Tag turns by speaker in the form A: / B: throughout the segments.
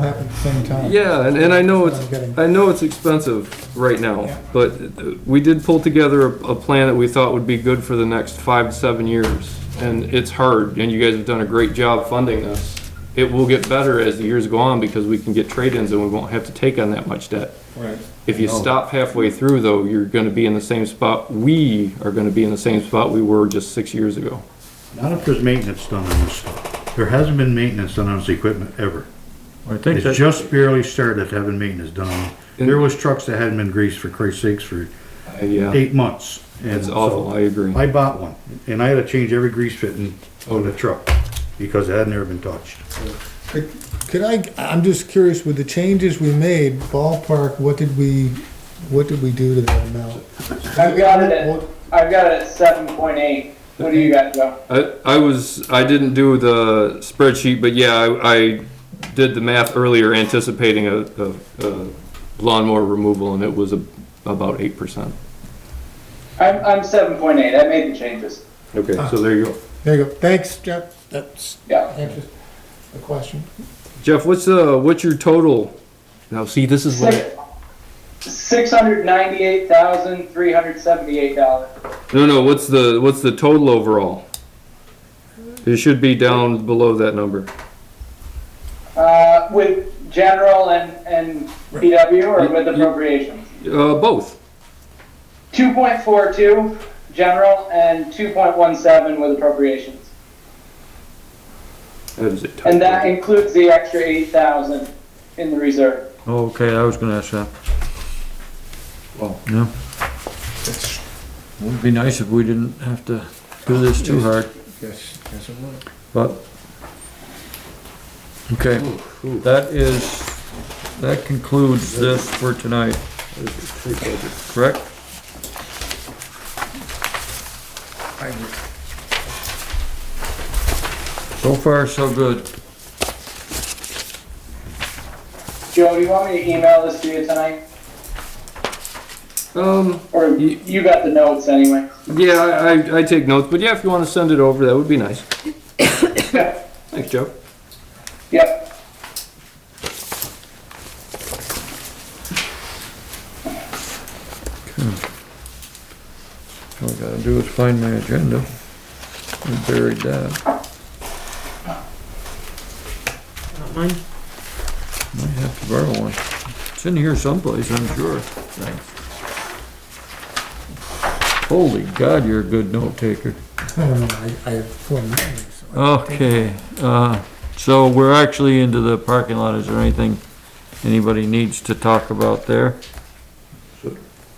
A: happen at the same time.
B: Yeah, and, and I know
A: I'm getting-
B: it's, I know it's expensive right
A: Yeah.
B: now, but uh, we did pull together a, a plan that we thought would be good for the next five to seven years. And it's hard, and you guys have done a great job funding this. It will get better as the years go on because we can get trade-ins and we won't have to take on that much debt.
C: Right.
B: If you
C: No.
B: stop halfway through though, you're gonna be in the same spot, we are gonna be in the same spot we were just six years ago.
D: Not if there's maintenance done on this stuff. There hasn't been maintenance done on this equipment ever.
C: I think
D: It's
C: that,
D: just barely started having maintenance done. on it. There was trucks that hadn't been greased for Christ's sakes for
B: Uh, Yeah,
D: eight months. and
B: it's awful,
D: so
B: I agree.
D: I bought one and I had to change every grease fitting on the truck because it had never been touched.
A: Could I, I'm just curious, with the changes we made, ballpark, what did we, what did we do to that amount?
E: I've got it at, I've got it at seven point eight. What do you guys got?
B: I, I was, I didn't do the spreadsheet, but yeah, I, I did the math earlier anticipating a, a, a lawnmower removal and it was a, about eight percent.
E: I'm, I'm seven point eight. I made the changes.
B: Okay.
C: Ah.
B: So there you go.
A: There you go, thanks, Jeff, that's,
E: Yeah.
A: answers the question.
B: Jeff, what's, uh, what's your total? Now, see, this is what,
E: Six, six hundred ninety-eight thousand, three hundred seventy-eight dollars.
B: no, no, what's the, what's the total overall? It should be down below that number.
E: Uh, with general and, and PW or with appropriations?
B: Uh, both.
E: Two point four two, general, and two point one seven with appropriations.
B: That is a tough
E: And that
B: one.
E: includes the extra eight thousand in the reserve.
C: oh, okay, I was gonna ask that.
B: Wow.
C: Yeah. Would be nice if we didn't have to do this too hard,
A: Yes, yes, it would.
C: but. Okay, that is, that concludes this for tonight. Correct?
A: I agree.
C: So far, so good.
E: Joe, do you want me to email this to you tonight?
B: Um,
E: Or
B: Ye-
E: you got the notes anyway?
B: yeah, I, I- I take notes, but yeah, if you wanna send it over, that would be nice.
E: Yeah.
B: Thanks, Joe.
E: Yep.
C: All I gotta do is find my agenda. I buried that. Might have to borrow one. It's in here someplace, I'm sure. Thanks. Holy God, you're a good note taker.
A: I don't know, I, I have four meetings. so
C: Okay, uh, so we're actually into the parking lot. Is there anything anybody needs to talk about there?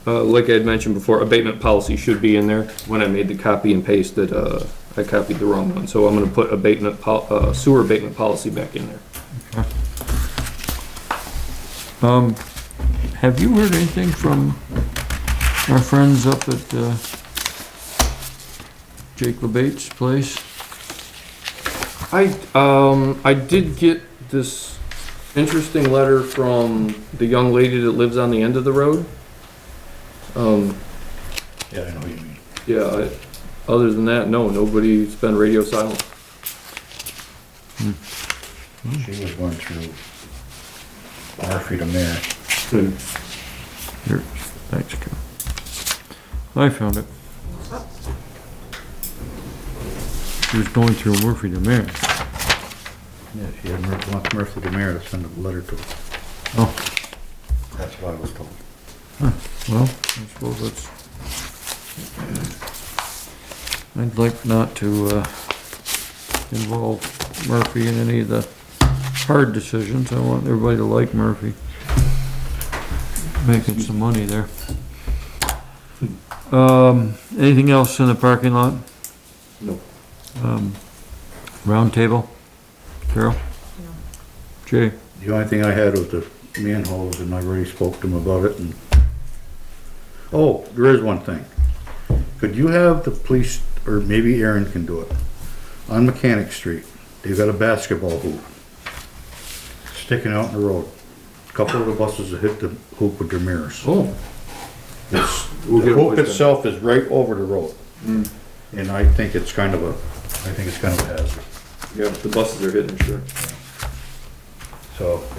B: Uh, like I had mentioned before, abatement policy should be in there. When I made the copy and paste it, uh, I copied the wrong one, so I'm gonna put abatement pol- uh, sewer abatement policy back in there.
C: Um, have you heard anything from our friends up at, uh, Jake LeBate's place?
B: I, um, I did get this interesting letter from the young lady that lives on the end of the road. Um,
D: Yeah, I know what you mean.
B: yeah, I, other than that, no, nobody's been radio silent.
D: She was going through Murphy to Mayor.
C: Here, thanks, Ken. I found it. He was going through Murphy to Mary.
D: Yeah, she had Murphy, wants Murphy to Mayor to send a letter to her.
C: Oh,
D: That's what I was told.
C: well, I suppose that's. I'd like not to, uh, involve Murphy in any of the hard decisions. I want everybody to like Murphy. Making some money there. Um, anything else in the parking lot?
B: No.
C: Um, round table? Carol? Jay?
D: The only thing I had was the manholes and I already spoke to him about it and. Oh, there is one thing. Could you have the police, or maybe Aaron can do it, on Mechanic Street, they've got a basketball hoop sticking out in the road. Couple of the buses have hit the hoop with their mirrors.
B: Oh,
D: It's,
B: We'll
D: the
B: get it Mm.
D: hoop
B: replaced.
D: itself is right over the road. And I think it's kind of a, I think it's kind of a hazard,
B: yeah, the buses are hitting, sure.
D: so.